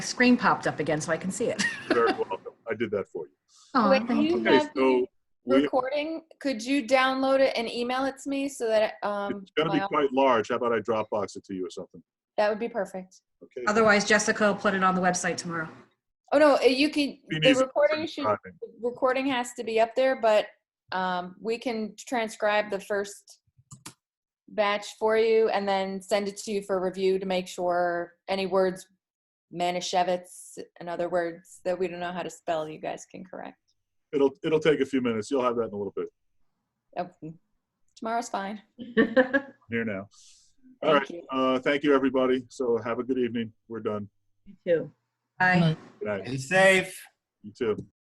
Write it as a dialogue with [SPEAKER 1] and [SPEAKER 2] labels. [SPEAKER 1] screen popped up again so I can see it.
[SPEAKER 2] You're very welcome. I did that for you.
[SPEAKER 1] Aw,
[SPEAKER 3] Wait,
[SPEAKER 1] thank
[SPEAKER 3] you
[SPEAKER 1] you.
[SPEAKER 2] Okay,
[SPEAKER 3] Have
[SPEAKER 2] so we,
[SPEAKER 3] recording, could you download it and email it to me so that, um,
[SPEAKER 2] it's gonna be
[SPEAKER 3] my-
[SPEAKER 2] quite large. How about I Dropbox it to you or something?
[SPEAKER 3] that would be perfect.
[SPEAKER 2] Okay?
[SPEAKER 1] Otherwise, Jessica will put it on the website tomorrow.
[SPEAKER 3] Oh, no, uh, you can,
[SPEAKER 2] He
[SPEAKER 3] the
[SPEAKER 2] needs it.
[SPEAKER 3] recording should,
[SPEAKER 2] Timing.
[SPEAKER 3] the recording has to be up there, but, um, we can transcribe the first batch for you and then send it to you for review to make sure any words, Manischewitz and other words that we don't know how to spell, you guys can correct.
[SPEAKER 2] It'll, it'll take a few minutes. You'll have that in a little bit.
[SPEAKER 3] Oh, Tomorrow's fine.
[SPEAKER 2] Here now. All
[SPEAKER 3] Thank
[SPEAKER 2] right.
[SPEAKER 3] you.
[SPEAKER 2] Uh, thank you, everybody. So have a good evening. We're done.
[SPEAKER 4] You too.
[SPEAKER 1] Bye.
[SPEAKER 2] Good night.
[SPEAKER 5] Be safe.
[SPEAKER 2] You too.